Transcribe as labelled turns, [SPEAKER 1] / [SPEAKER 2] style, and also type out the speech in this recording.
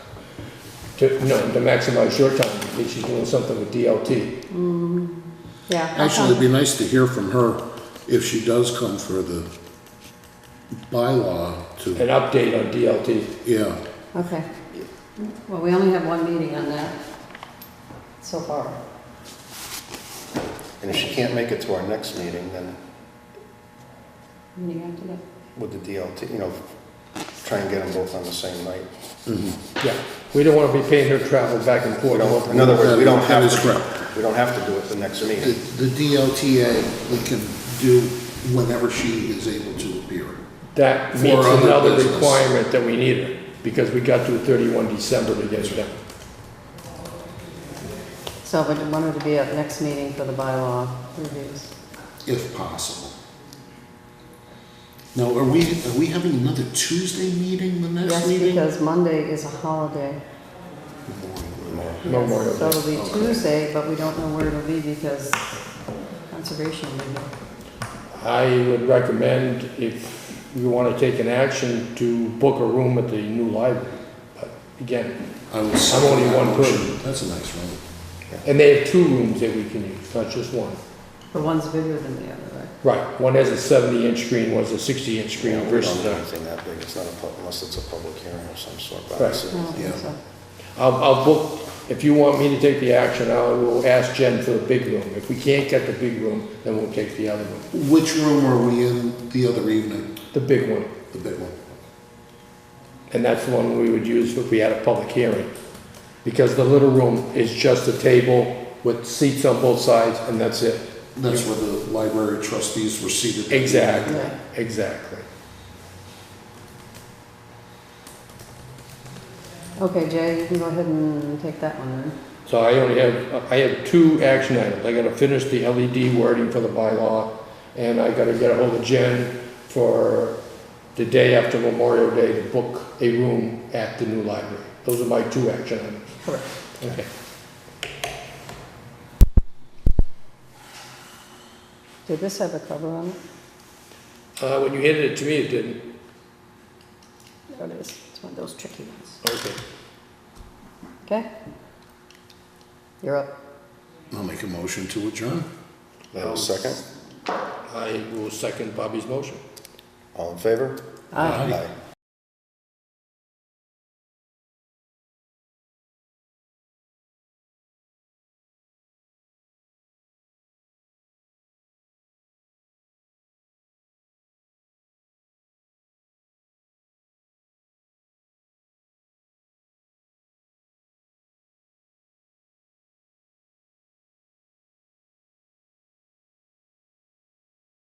[SPEAKER 1] to, no, to maximize your time, because she's doing something with DLT.
[SPEAKER 2] Yeah. I'll
[SPEAKER 3] Actually, it'd
[SPEAKER 2] come.
[SPEAKER 3] be nice to hear from her if she does come for the bylaw
[SPEAKER 1] An
[SPEAKER 3] to,
[SPEAKER 1] update on DLT.
[SPEAKER 3] yeah.
[SPEAKER 2] Okay. Well, we only have one meeting on that so far.
[SPEAKER 4] And if she can't make it to our next meeting, then
[SPEAKER 2] Meeting after that.
[SPEAKER 4] with the DLT, you know, try and get them both on the same night.
[SPEAKER 1] Yeah, we don't want to be paying her travel back and
[SPEAKER 4] We
[SPEAKER 1] forth.
[SPEAKER 4] don't, in other words, we don't
[SPEAKER 3] That
[SPEAKER 4] have
[SPEAKER 3] is
[SPEAKER 4] to,
[SPEAKER 3] correct.
[SPEAKER 4] we don't have to do it the next
[SPEAKER 3] The
[SPEAKER 4] meeting.
[SPEAKER 3] the DLTA, we can do whenever she is able to appear.
[SPEAKER 1] That
[SPEAKER 3] For
[SPEAKER 1] meets
[SPEAKER 3] other
[SPEAKER 1] another
[SPEAKER 3] business.
[SPEAKER 1] requirement that we need her, because we got to 31 December to get her done.
[SPEAKER 2] So we wanted to be at next meeting for the bylaw reviews.
[SPEAKER 3] if possible. Now, are we, are we having another Tuesday meeting the next
[SPEAKER 2] Yes,
[SPEAKER 3] meeting?
[SPEAKER 2] because Monday is a holiday.
[SPEAKER 1] Memorial
[SPEAKER 2] So
[SPEAKER 1] Day.
[SPEAKER 2] it'll be Tuesday, but we don't know where it'll be because conservation will be.
[SPEAKER 1] I would recommend, if you want to take an action, to book a room at the new library. But Again,
[SPEAKER 3] I will second
[SPEAKER 1] only
[SPEAKER 3] that
[SPEAKER 1] one
[SPEAKER 3] motion.
[SPEAKER 1] person.
[SPEAKER 3] That's a nice room.
[SPEAKER 1] and they have two rooms that we can use, not just one.
[SPEAKER 2] But one's bigger than the other, right?
[SPEAKER 1] Right, one has a 70-inch screen, one's a 60-inch
[SPEAKER 4] You
[SPEAKER 1] screen
[SPEAKER 4] know, we don't
[SPEAKER 1] versus
[SPEAKER 4] do
[SPEAKER 1] a...
[SPEAKER 4] anything that big, it's not a, pub- unless it's a public hearing of some sort, but
[SPEAKER 1] Right.
[SPEAKER 2] I don't
[SPEAKER 4] it's-
[SPEAKER 2] think
[SPEAKER 3] Yeah.
[SPEAKER 2] so.
[SPEAKER 1] I'll, I'll book, if you want me to take the action, I will ask Jen for the big room. If we can't get the big room, then we'll take the other room,
[SPEAKER 3] Which room were we in the other evening,
[SPEAKER 1] the big one.
[SPEAKER 3] the big one?
[SPEAKER 1] And that's the one we would use if we had a public hearing. Because the little room is just a table with seats on both sides, and that's it.
[SPEAKER 3] That's where the library trustees were seated.
[SPEAKER 1] Exactly,
[SPEAKER 2] Yeah.
[SPEAKER 1] exactly.
[SPEAKER 2] Okay, Jay, you can go ahead and take that one then.
[SPEAKER 1] So I only have, I have two action items. I gotta finish the LED wording for the bylaw, and I gotta get a hold of Jen for the day after Memorial Day to book a room at the new library. Those are my two action items.
[SPEAKER 2] Correct.
[SPEAKER 1] Okay.
[SPEAKER 2] Did this have a cover on it?
[SPEAKER 1] Uh, when you handed it to me, it didn't.
[SPEAKER 2] There it is. It's one of those tricky ones.
[SPEAKER 1] Okay.
[SPEAKER 2] Okay? You're up.
[SPEAKER 3] I'll make a motion to adjourn.
[SPEAKER 4] Now, a second,
[SPEAKER 1] I will second Bobby's motion.
[SPEAKER 4] all in favor?
[SPEAKER 2] Aye.
[SPEAKER 4] Aye.